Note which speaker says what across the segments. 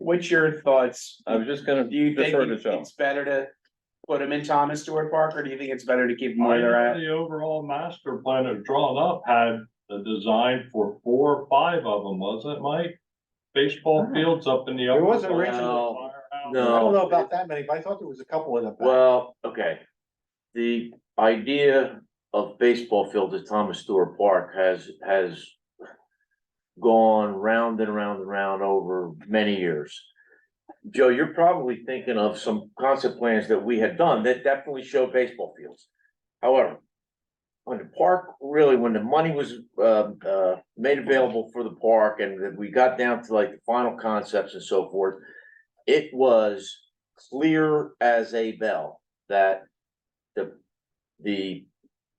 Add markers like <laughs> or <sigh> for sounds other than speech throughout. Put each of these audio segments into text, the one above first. Speaker 1: what's your thoughts?
Speaker 2: I was just gonna,
Speaker 1: Do you
Speaker 2: just
Speaker 1: think
Speaker 2: sort of tell.
Speaker 1: it's better to put them in Thomas Stewart Park, or do you think it's better to keep them
Speaker 3: I
Speaker 1: where they're
Speaker 3: know
Speaker 1: at?
Speaker 3: The overall master plan that was drawn up had the design for four or five of them, wasn't it, Mike? Baseball fields up in the.
Speaker 4: There
Speaker 3: upper
Speaker 4: wasn't
Speaker 3: part.
Speaker 4: originally-
Speaker 2: No,
Speaker 3: Firehouse.
Speaker 2: no.
Speaker 4: I don't know about that many, but I thought there was a couple in the back.
Speaker 2: Well, okay. The idea of baseball field at Thomas Stewart Park has, has gone round and round and round over many years. Joe, you're probably thinking of some concept plans that we had done that definitely show baseball fields. However, when the park, really, when the money was, uh, uh, made available for the park and that we got down to like the final concepts and so forth, it was clear as a bell that the, the,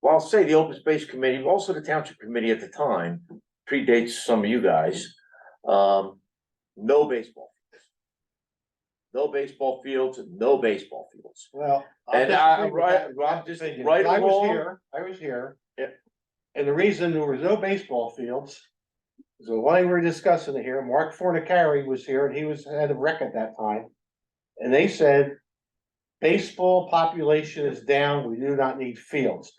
Speaker 2: well, I'll say the open space committee, but also the township committee at the time, predates some of you guys. Um, no baseball. fields. No baseball fields, no baseball fields.
Speaker 4: Well. I'll
Speaker 2: And I-
Speaker 4: disagree with
Speaker 2: right-
Speaker 4: that-
Speaker 2: Rob,
Speaker 4: that
Speaker 2: just
Speaker 4: opinion.
Speaker 2: right
Speaker 4: I was
Speaker 2: along-
Speaker 4: here, I was here.
Speaker 2: Yeah.
Speaker 4: And the reason there was no baseball fields, is that while we were discussing it here, Mark Fornicari was here and he was head of rec at that time. And they said, baseball population is down, we do not need fields.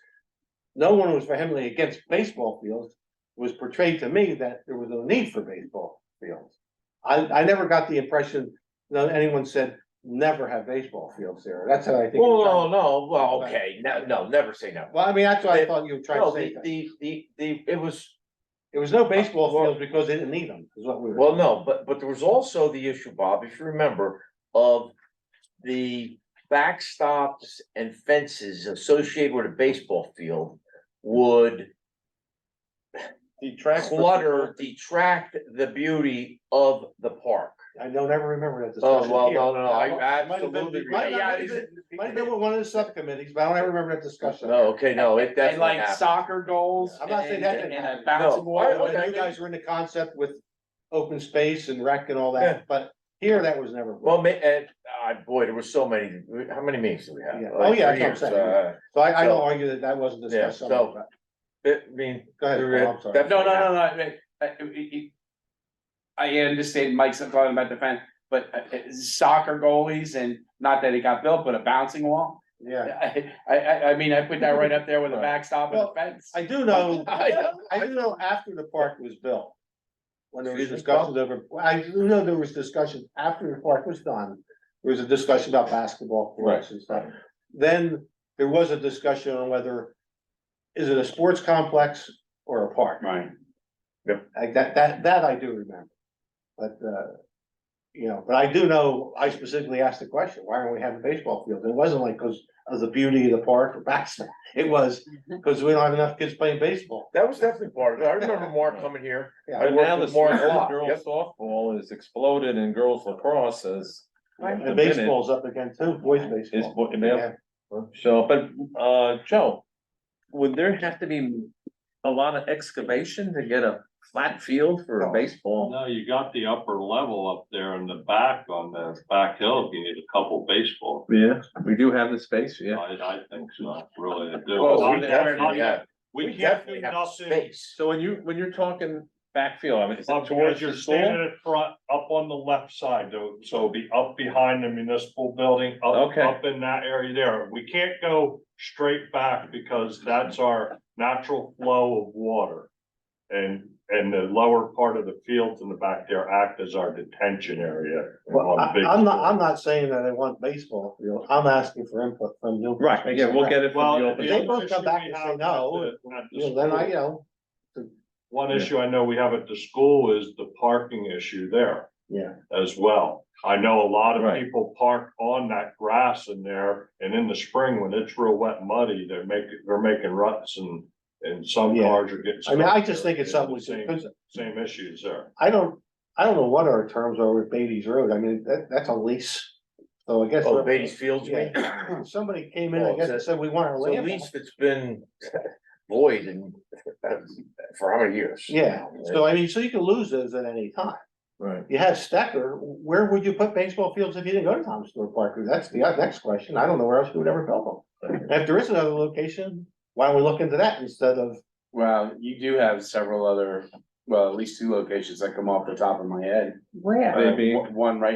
Speaker 4: No one was vehemently against baseball fields, It was portrayed to me that there was no need for baseball fields. I, I never got the impression that anyone said, never have baseball fields there, that's how I think. it was
Speaker 2: Well, Oh, no, no, well, okay, no, no, never say never.
Speaker 4: well, I mean, that's what I
Speaker 2: They-
Speaker 4: thought you were trying
Speaker 2: No,
Speaker 4: to say.
Speaker 2: the, the, the, the, it was,
Speaker 4: There was no baseball fields because they didn't need them, is what we were.
Speaker 2: Well, no, but, but there was also the issue, Bob, if you remember, of the backstops and fences associated with a baseball field would
Speaker 4: Detract.
Speaker 2: clutter, detract the beauty of the park.
Speaker 4: I don't ever remember that discussion
Speaker 2: Oh,
Speaker 4: here.
Speaker 2: well, no, no, no, I
Speaker 4: Might have been-
Speaker 2: absolutely.
Speaker 4: might have
Speaker 2: yeah,
Speaker 4: been-
Speaker 2: is it-
Speaker 4: Might have been with one of the subcommittees, but I don't ever remember that discussion.
Speaker 2: No, okay, no, it
Speaker 1: And
Speaker 2: definitely
Speaker 1: like
Speaker 2: happened.
Speaker 1: soccer goals?
Speaker 4: I'm not saying
Speaker 1: and-
Speaker 4: that
Speaker 1: and-
Speaker 4: didn't
Speaker 1: And a
Speaker 4: happen.
Speaker 1: bouncing
Speaker 2: No,
Speaker 1: ball?
Speaker 2: I-
Speaker 4: Well,
Speaker 2: okay.
Speaker 4: You guys were in the concept with open space and rec and all
Speaker 2: Yeah.
Speaker 4: that, but here that was never.
Speaker 2: Well, ma- and, uh, boy, there were so many, how many meetings did we
Speaker 4: Yeah.
Speaker 2: have?
Speaker 4: Oh,
Speaker 2: Like
Speaker 4: yeah,
Speaker 2: three
Speaker 4: that's what I'm
Speaker 2: years,
Speaker 4: saying.
Speaker 2: uh,
Speaker 4: So I, I don't
Speaker 2: so-
Speaker 4: argue that that wasn't
Speaker 2: Yeah,
Speaker 4: discussed.
Speaker 2: so-
Speaker 4: somewhere, but-
Speaker 2: it- I mean.
Speaker 4: Go ahead,
Speaker 2: there-
Speaker 4: Paul, I'm sorry.
Speaker 2: definitely
Speaker 1: No, no, no, no, I- I, I- I understand Mike's talking about defense, but uh, soccer goalies and not that it got built, but a bouncing wall. <laughs>
Speaker 4: Yeah,
Speaker 1: I, I, I mean, I put that right up there with a backstop and a
Speaker 4: Well,
Speaker 1: fence.
Speaker 4: I do know,
Speaker 1: I know.
Speaker 4: I do know after the park was built. When there was
Speaker 2: Excuse me, Bob?
Speaker 4: discussions over, I do know there was discussion after the park was done, there was a discussion about basketball courts and stuff. Then there was a discussion on whether, is it a sports complex or a park?
Speaker 1: Right.
Speaker 4: Like that, that, that I do remember. But, uh, you know, but I do know, I specifically asked the question, why aren't we having baseball fields? It wasn't like because of the beauty of the park or <laughs> basketball. It was because we don't have enough kids playing baseball.
Speaker 2: That was definitely part of it. I remember Mark coming here.
Speaker 4: Yeah.
Speaker 2: I
Speaker 3: And now
Speaker 2: worked
Speaker 3: the
Speaker 2: with Mark a lot.
Speaker 3: girls
Speaker 2: Yep.
Speaker 3: softball is exploded and girls lacrosse is.
Speaker 4: The baseball's up again too, boys
Speaker 3: Is,
Speaker 4: baseball.
Speaker 3: yeah, so, but, uh, Joe, would there have to be a lot of excavation to get a flat field for a baseball?
Speaker 5: No, you got the upper level up there in the back on the back hill, if you need a couple baseball,
Speaker 3: Yeah, we do have the space, yeah.
Speaker 5: I, I think so, really to
Speaker 1: Well,
Speaker 2: Oh,
Speaker 1: we
Speaker 2: we
Speaker 5: do.
Speaker 2: definitely have- we
Speaker 5: We can't
Speaker 2: definitely
Speaker 5: do
Speaker 2: have
Speaker 5: nothing.
Speaker 2: Space.
Speaker 3: So when you, when you're talking backfield, I mean, is
Speaker 5: Up
Speaker 3: it
Speaker 5: towards
Speaker 3: towards
Speaker 5: you're
Speaker 3: your school?
Speaker 5: standing at front, up on the left side, though, so be up behind the municipal building, up,
Speaker 3: Okay.
Speaker 5: up in that area there. We can't go straight back because that's our natural flow of water. And, and the lower part of the fields in the back there act as our detention area.
Speaker 4: Well,
Speaker 5: on
Speaker 4: I,
Speaker 5: big
Speaker 4: am
Speaker 5: fields.
Speaker 4: not, I'm not saying that I want baseball field. I'm asking for input from you.
Speaker 3: Right, yeah, we'll get it
Speaker 5: Well,
Speaker 3: from the open.
Speaker 4: If
Speaker 5: the other
Speaker 4: they both come
Speaker 5: issue
Speaker 4: back
Speaker 5: we
Speaker 4: and
Speaker 5: have
Speaker 4: say
Speaker 5: at
Speaker 4: no,
Speaker 5: the- at the
Speaker 4: you know, then I,
Speaker 5: school-
Speaker 4: you know,
Speaker 5: One
Speaker 3: Yeah.
Speaker 5: issue I know we have at the school is the parking issue there
Speaker 4: yeah,
Speaker 5: as well. I know a lot of
Speaker 3: Right.
Speaker 5: people park on that grass in there, and in the spring when it's real wet and muddy, they're making, they're making ruts and. And some
Speaker 4: Yeah.
Speaker 5: cars are getting.
Speaker 4: I mean, I
Speaker 5: stuck
Speaker 4: just
Speaker 5: there.
Speaker 4: think it's
Speaker 5: And
Speaker 4: something we
Speaker 5: the
Speaker 4: should,
Speaker 5: Same, same issues there.
Speaker 4: I don't, I don't know what our terms are with Beatty's Road. I mean, that, that's a lease. So I guess.
Speaker 2: Oh, Beatty's Fields, you mean?
Speaker 4: Yeah. Somebody came in,
Speaker 2: Well,
Speaker 4: I
Speaker 2: it's
Speaker 4: guess,
Speaker 2: a-
Speaker 4: and said, we want our
Speaker 2: So at
Speaker 4: land. back."
Speaker 2: least it's been void and for how many years?
Speaker 4: Yeah, so I mean, so you can lose those at any time.
Speaker 3: Right.
Speaker 4: You have Stecker, where would you put baseball fields if you didn't go to Thomas Stewart Park? That's the uh, next question. I don't know where else we would ever build them. And If there is another location, why don't we look into that instead of,
Speaker 1: Well, you do have several other, well, at least two locations that come off the top of my head.
Speaker 6: Where?
Speaker 1: Uh,
Speaker 3: Maybe.
Speaker 1: One right